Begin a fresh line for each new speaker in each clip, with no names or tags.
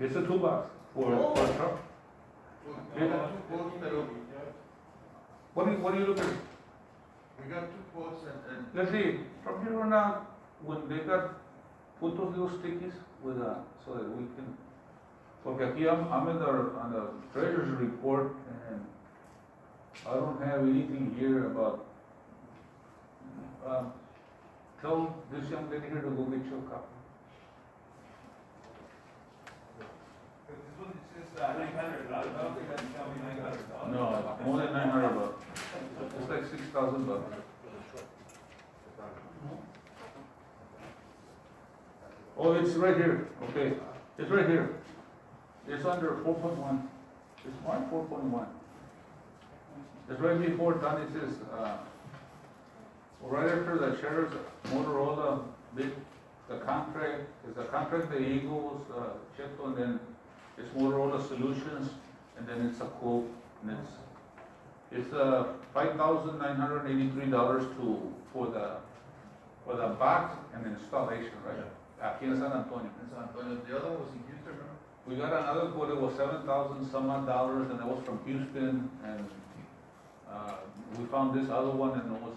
It's a toolbox for, for a truck.
We got two quotes, pero
What do you, what do you look at?
we got two quotes and, and
Let's see, from here on out, when they got, put those little stickies with, uh, so that we can, okay, here I'm, I'm in the, on the treasurer's report and I don't have anything here about, um, tell this young lady here to go get you a copy.
this one is just uh, nine hundred, I don't think that's coming nine hundred dollars.
No, more than nine hundred bucks. It's like six thousand bucks. Oh, it's right here, okay, it's right here. It's under four point one, it's marked four point one. It's right before done, it says, uh, right after the sheriff's Motorola bid, the contract, is the contract the Eagles, uh, checked on, then it's Motorola Solutions, and then it's a quote, and it's, it's, uh, five thousand nine hundred eighty-three dollars to, for the, for the box and installation, right? Aquí in San Antonio.
and San Antonio. The other was in Houston, remember?
We got another quote, it was seven thousand some odd dollars, and that was from Houston, and, uh, we found this other one, and it was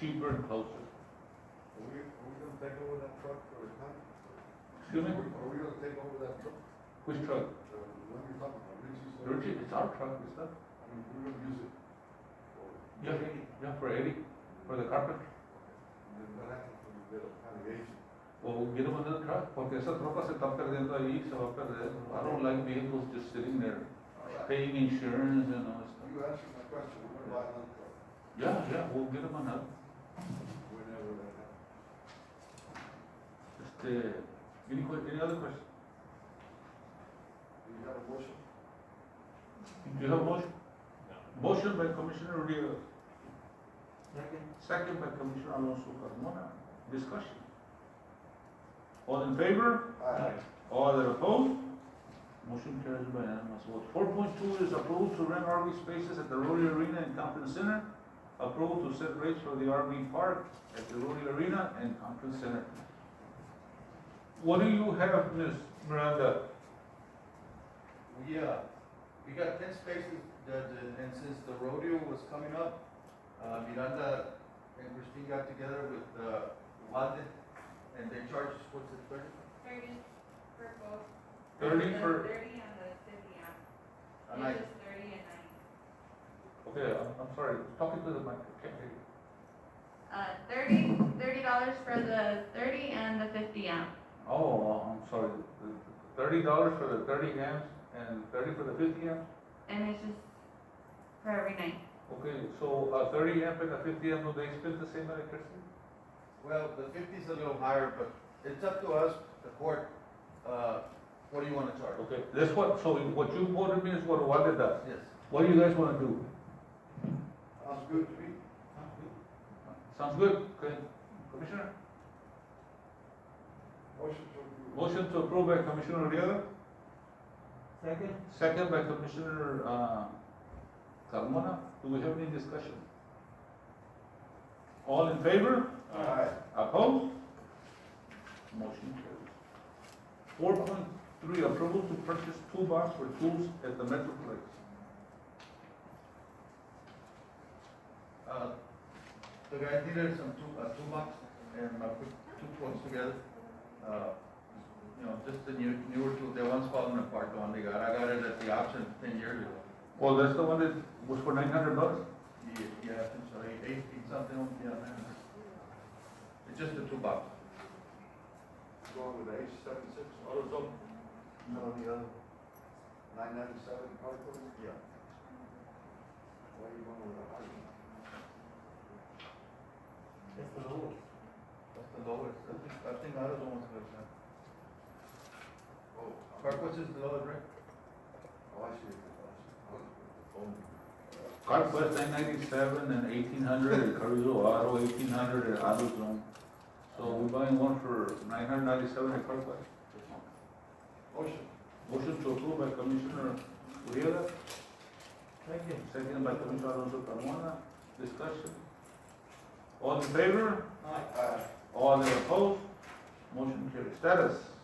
cheaper and closer.
Are we, are we gonna take over that truck or not?
Excuse me,
Are we- Are we gonna take over that truck?
which truck?
The one you're talking about, Richie's? truck?
Richie, it's our truck, it's not,
I mean, we're gonna use it. for-
yeah, yeah, for Eddie, for the carpet.
And then what happens when we get a allegation?
O get him another truck, porque esa tropa se está perdiendo ahí, se va a perder. I don't like vehicles just sitting there,
All right.
paying insurance and all that stuff.
You answered my question, we're gonna buy another truck
Yeah, yeah, we'll get him another.
whenever that happens.
Este, uh, any que, any other question?
Do you have a motion?
Do you have motion? Motion by Commissioner Uriel. Second by Commissioner Alonso Carmona. Discussion. All in favor?
Aye.
All that opposed? Motion carries by unanimous vote. Four point two is approval to rent RV spaces at the Rotary Arena and Conference Center. Approval to set rates for the RV park at the Rotary Arena and Conference Center. What do you have, Ms. Miranda?
We, uh, we got ten spaces, that, uh, and since the rodeo was coming up, uh, Miranda and Christine got together with, uh, Walden, and they charged, us, what's it, thirty?
Thirty for both.
Thirty
The
for,
Thirty on the city app.
And I,
It's just thirty and nine.
okay, I'm, I'm sorry, talking to the mic, I can't hear you.
Uh, thirty, thirty dollars for the thirty and the fifty amp.
Oh, I'm sorry, The- the thirty dollars for the thirty amps and thirty for the fifty amps?
And it's just for every night.
Okay, so, uh, thirty amp and a fifty amp, do they spend the same electricity?
well, the fifty's a little higher, but it's up to us, the court, uh, what do you wanna charge?
Okay, that's what, so what you quoted me is what Wanda does.
Yes.
What do you guys wanna do?
Sounds good to me.
Sounds good, okay. Commissioner?
Motion to approve.
Motion to approve by Commissioner Uriela,
Second?
second by Commissioner, uh, Carmona. Do we have any discussion? All in favor?
Aye.
Opposed? Motion carries. Four point three, approval to purchase toolbox for tools at the Metroplex.
Uh, The guy needed some two, uh, two bucks and I put two quotes together. Uh, You know, just the new, newer tool, the one's falling apart, the one they got, I got it at the auction ten years ago.
Oh, that's the one that was for nine hundred bucks?
Yeah, Yeah, I think so, eight, eight feet something, yeah. man. It's just a two box.
Going with the H seven six, AutoZone. No, the other. Nine ninety-seven, probably.
Yeah.
Why you going with a hundred?
That's the lowest.
That's the lowest, I think, I think other one's like that.
Oh.
Carquest is the lowest, right?
Oh, I see. I
Carquest nine ninety-seven and eighteen hundred, and Carrizo Auto eighteen hundred, and AutoZone. So we're buying one for nine hundred ninety-seven at Carquest.
see. Motion.
Motion to approve by Commissioner Uriela,
Second.
second by Commissioner Alonso Carmona. Discussion. All in favor?
Aye.
Aye.
Ah, tá.
All that opposed? Motion carries. Status.